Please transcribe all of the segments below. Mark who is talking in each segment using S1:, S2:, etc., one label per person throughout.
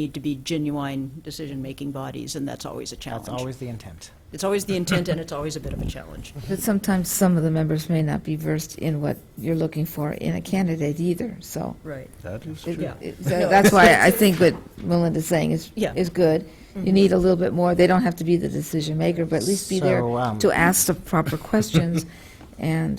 S1: need to be genuine decision-making bodies, and that's always a challenge.
S2: That's always the intent.
S1: It's always the intent, and it's always a bit of a challenge.
S3: But sometimes some of the members may not be versed in what you're looking for in a candidate either, so.
S1: Right.
S4: That is
S3: it-
S1: Yeah.
S3: it- so That's why I think what Melinda's saying is,
S1: Yeah.
S3: is good.
S2: Mm-hmm.
S3: You need a little bit more, they don't have to be the decision maker, but at least be there
S2: So, um,
S3: to ask the proper questions, and,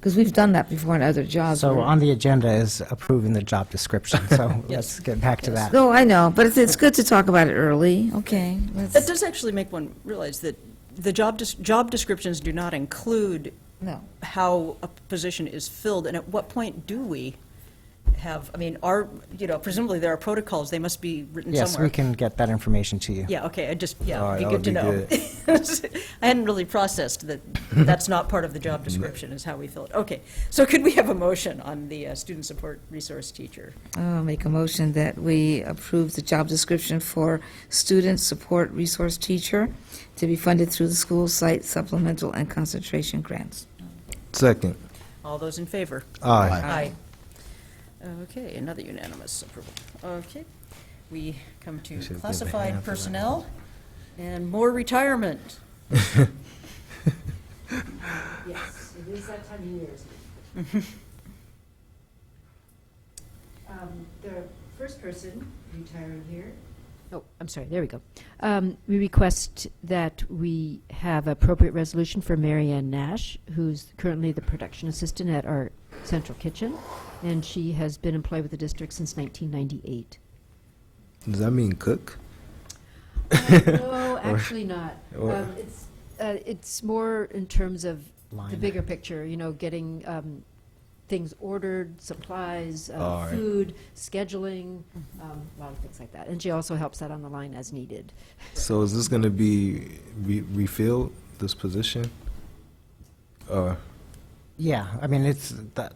S3: because we've done that before in other jobs.
S2: Mm-hmm. So
S3: where-
S2: on the agenda is approving the job description, so
S1: Yes.
S2: let's get back to that.
S3: No, Oh, I know, but it's, it's good to talk about it early, okay. let's-
S1: That does actually make one realize that the job, des- job descriptions do not include
S3: No.
S1: how a position is filled, and at what point do we have, I mean, are, you know, presumably there are protocols, they must be written somewhere.
S2: Yes, we can get that information to you.
S1: Yeah, okay, I just,
S4: All
S1: yeah,
S4: right,
S1: it'd be good to
S4: that
S1: know.
S4: would
S1: I hadn't really processed that, that's not part of the job description, is how we fill it. Okay, so could we have a motion on the uh, student support resource teacher?
S3: I'll make a motion that we approve the job description for student support resource teacher to be funded through the school site supplemental and concentration grants.
S4: Second.
S1: All those in favor?
S4: Aye.
S1: Aye. Okay, another unanimous approval. Okay, we come to
S4: should give the hand
S1: classified
S4: for that.
S1: personnel and more retirement.
S5: Yes, it is that time of year, isn't it? Um, The first person retiring here,
S6: Oh, I'm sorry, there we go. Um, We request that we have appropriate resolution for Mary Ann Nash, who's currently the production assistant at our central kitchen, and she has been employed with the district since 1998.
S4: Does that mean cook?
S6: No, actually not.
S4: or-
S6: Um, It's uh, it's more in terms of the
S2: Line.
S6: bigger picture, you know, getting um, things ordered, supplies, uh,
S4: All right. Mm-hmm.
S6: food, scheduling, um, a lot of things like that. And she also helps out on the line as needed.
S4: So is this gonna be re- refilled, this position? Uh, Or,
S2: Yeah, I mean, it's, that-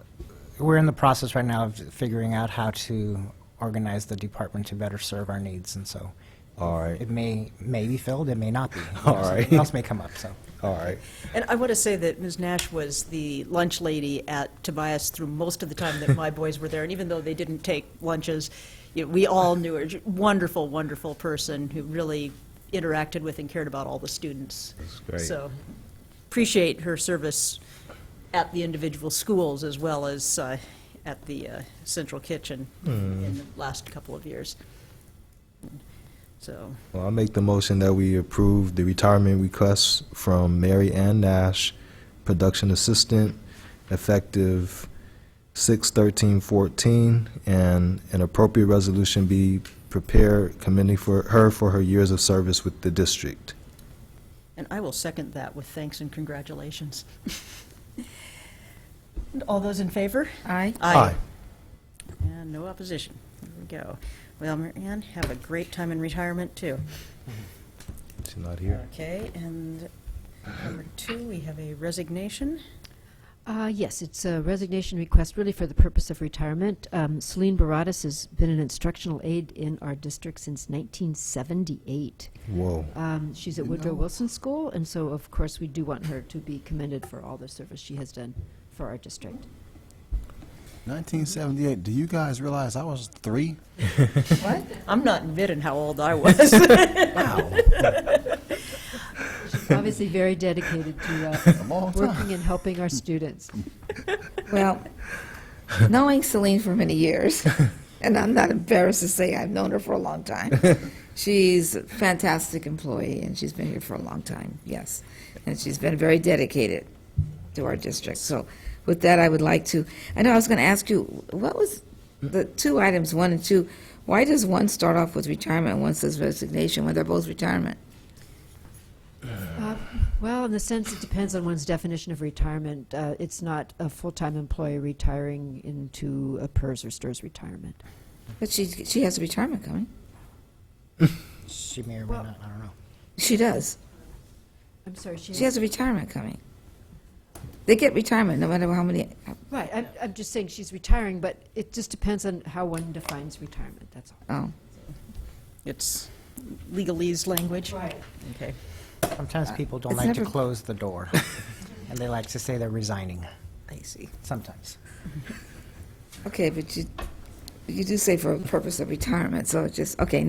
S2: we're in the process right now of figuring out how to organize the department to better serve our needs, and so.
S4: All right.
S2: It may, may be filled, it may not be. You know,
S4: All right.
S2: Something else may come up, so.
S4: all right,
S1: And I want to say that Ms. Nash was the lunch lady at Tobias through most of the time that my boys were there, and even though they didn't take lunches, you know, we all knew her. J- Wonderful, wonderful person who really interacted with and cared about all the students.
S4: That's great.
S1: So appreciate her service at the individual schools as well as uh, at the uh, central kitchen
S4: Hmm.
S1: in the last couple of years. So,
S4: well, I'll make the motion that we approve the retirement request from Mary Ann Nash, production assistant, effective six thirteen fourteen, and an appropriate resolution be prepared commending for her for her years of service with the district.
S1: and I will second that with thanks and congratulations. And All those in favor?
S3: Aye?
S1: And no opposition. There we go. Well, Mary Ann, have a great time in retirement, too.
S4: She's not here.
S1: Okay, and number two, we have a resignation.
S6: Uh, Yes, it's a resignation request really for the purpose of retirement. Um, Celine Baradas has been an instructional aide in our district since 1978.
S4: Whoa.
S6: Um, She's at Woodrow Wilson School, and so of course we do want her to be commended for all the service she has done for our district.
S7: 1978. Do you guys realize I was three?
S3: What?
S1: I'm not admitting how old I was.
S6: She's Obviously very dedicated to uh,
S7: long time.
S6: working and helping our students.
S3: Well, knowing Celine for many years, and I'm not embarrassed to say I've known her for a long time. She's a fantastic employee, and she's been here for a long time, yes. And she's been very dedicated to our district. So with that, I would like to, I know I was going to ask you, what was the two items, one and two, why does one start off with retirement and one says resignation when they're both retirement?
S6: Uh, Well, in the sense, it depends on one's definition of retirement. Uh, It's not a full-time employee retiring into a PERS or STIRS retirement.
S3: But she, she has a retirement coming.
S2: She may or may not, I don't know.
S3: She does.
S6: I'm sorry, she
S3: She has a retirement coming. They get retirement no matter how many,
S6: Right, I'm, I'm just saying she's retiring, but it just depends on how one defines retirement, that's all.
S3: oh.
S1: It's legalese language.
S6: Right.
S1: Okay.
S2: Sometimes people don't
S3: uh, it's
S2: like to
S3: never-
S2: close the door, and they like to say they're resigning,
S3: I see.
S2: sometimes.
S3: Okay, but you, you do say for a purpose of retirement, so it's just, okay,